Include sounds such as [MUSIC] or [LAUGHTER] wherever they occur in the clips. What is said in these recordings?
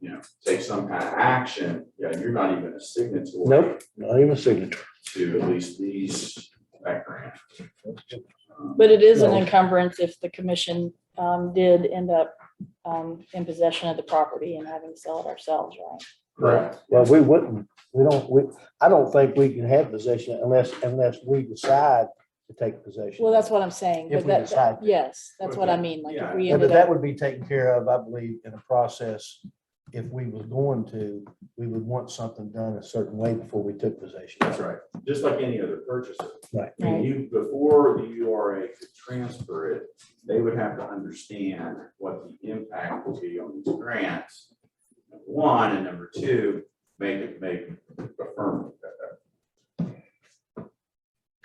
you know, take some kind of action, yeah, you're not even a signatory. Nope, not even a signature. To at least these, that grant. Um, But it is an No. encumbrance if the commission um, did end up um, in possession of the property and having to sell it ourselves, right? Correct. Well, we wouldn't, we don't, we, I don't think we can have possession unless, unless we decide to take possession. Well, that's what I'm saying. If But we that, decide that- to. yes, that's what I mean, like if we ended But that up, would be taken care of, I believe, in a process. If we was going to, we would want something done a certain way before we took possession. That's right, just like any other purchaser. Right. I mean, you, before the URA could transfer it, they would have to understand what the impact will be on these grants. number One, and number two, make it, make a firm uh,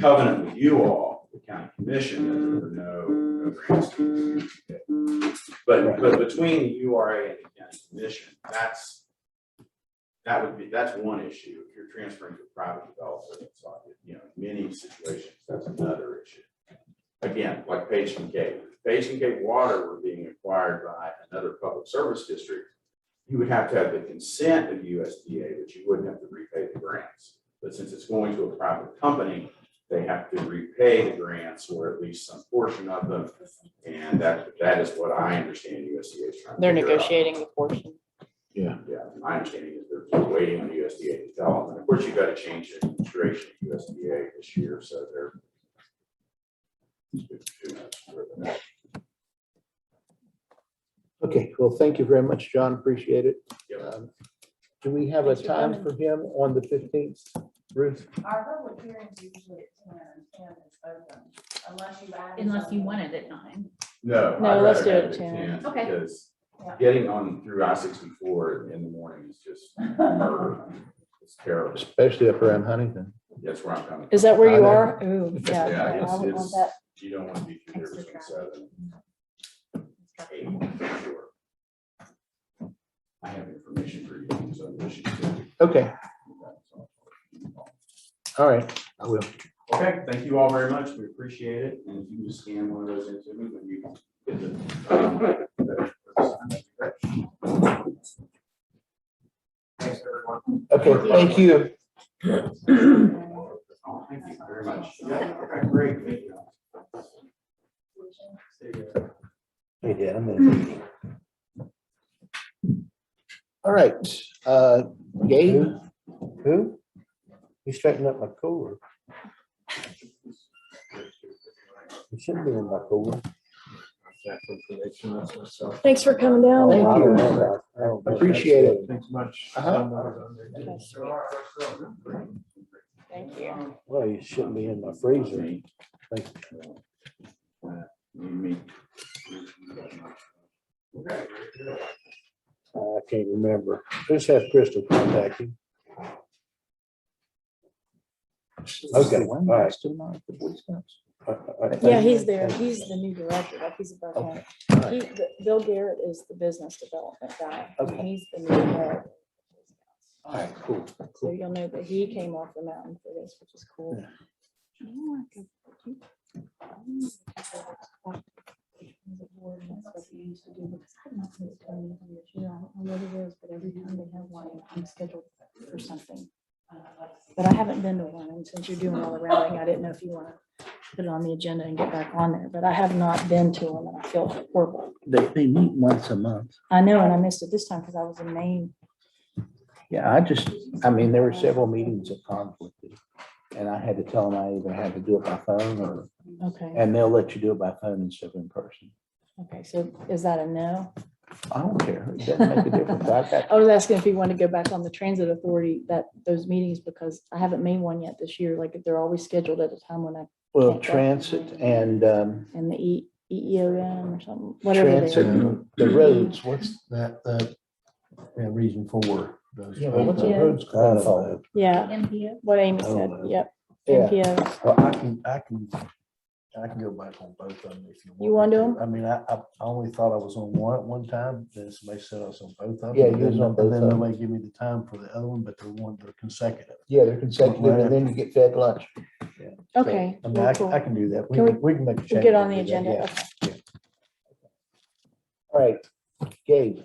covenant with you all, the county commission, that there were no- no grants. to be paid. But, but between the URA and the county commission, that's that would be, that's one issue. If you're transferring to a private developer, it's like, you know, many situations, that's another issue. Again, like Page and Gate, if Page and Gate water were being acquired by another public service district. You would have to have the consent of USDA, but you wouldn't have to repay the grants. But since it's going to a private company, they have to repay the grants or at least some portion of them. And that, that is what I understand USDA is trying to. they're figure out. negotiating the portion. Yeah, my understanding is they're just waiting on USDA to tell them. And of course, you've got to change the duration of USDA this year, so they're. Who knows where they're at. Okay, well, thank you very much, John. Appreciate it. Yep. Um, Do we have a Thanks for time coming. for him on the fifteenth? Ruth? Our public hearings usually at ten, and ten is open, unless you add. Unless you something. want it at nine. No. No, I'd let's rather do it have at 10. Okay. Because Yeah. getting on through I sixty-four in the morning is [LAUGHS] just murder. It's terrible. Especially up around Huntington. That's where I'm coming. Is that where I you know. are? Ooh, yeah. Yeah, okay, I it's- would want it's- that. You don't want to be through there between seven and eight, for sure. I have information for you, so I wish you could. Okay, all right, I will. Okay, thank you all very much. We appreciate it. And if you can just scan one of those into me when you. get the, um, Thanks, everyone. Okay, thank you. Oh, Thank you very much. Yeah, okay, great. Thank you. See you. Yeah, I Hmm. mean, All right, uh, Gabe? who? You straightened up my cooler. It shouldn't be in my cooler. Thanks for coming down. I Thank don't you. know that. I don't know that. Appreciate it. Thanks much. Uh-huh. Thank you. Well, it shouldn't be in my freezer. Thank Okay. I can't remember. Just have Crystal contact you. Okay, all right. I- I- I think- Yeah, he's there. He's the new director. Like he's above him. He, Bill Garrett is the business development guy. and Okay. He's the new director. All right, cool. So you'll know that he came off the mountain for this, which is cool. But I haven't been to one, and since you're doing all the rallying, I didn't know if you want to put it on the agenda and get back on there, but I have not been to one, and I feel horrible. They, they meet once a month. I know, and I missed it this time because I was in Maine. Yeah, I just, I mean, there were several meetings that conflicted. And I had to tell them I either had to do it by phone or, Okay, and they'll let you do it by phone instead of in person. okay, so is that a no? I don't care. It doesn't make a difference. I got I was asking if you want to go back on the transit authority, that, those meetings, because I haven't made one yet this year, like, they're always scheduled at a time when I, Well, transit and um, and the E, EEOM or something, whatever they transit, are. and the roads. What's that, uh, yeah, reason for those? Yeah, but what's Uh, a Yeah. roads called? Yeah, MPO. what Amy said, Oh, yep, Yeah, NPO, Well, I can, I can, I can go back on both of them if you want. You want me to 'em? I mean, I, I I only thought I was on one at one time, then somebody said I was on both of them. Yeah, and you was then- on both And of then 'em. nobody gave me the time for the other one, but they're one, they're consecutive. yeah, they're consecutive, and then you get fed lunch. okay. I mean, well, I can, cool. I can do that. We Can we- can, we can make a change. We'll get on the and do that, yeah. agenda, okay. All right, Gabe,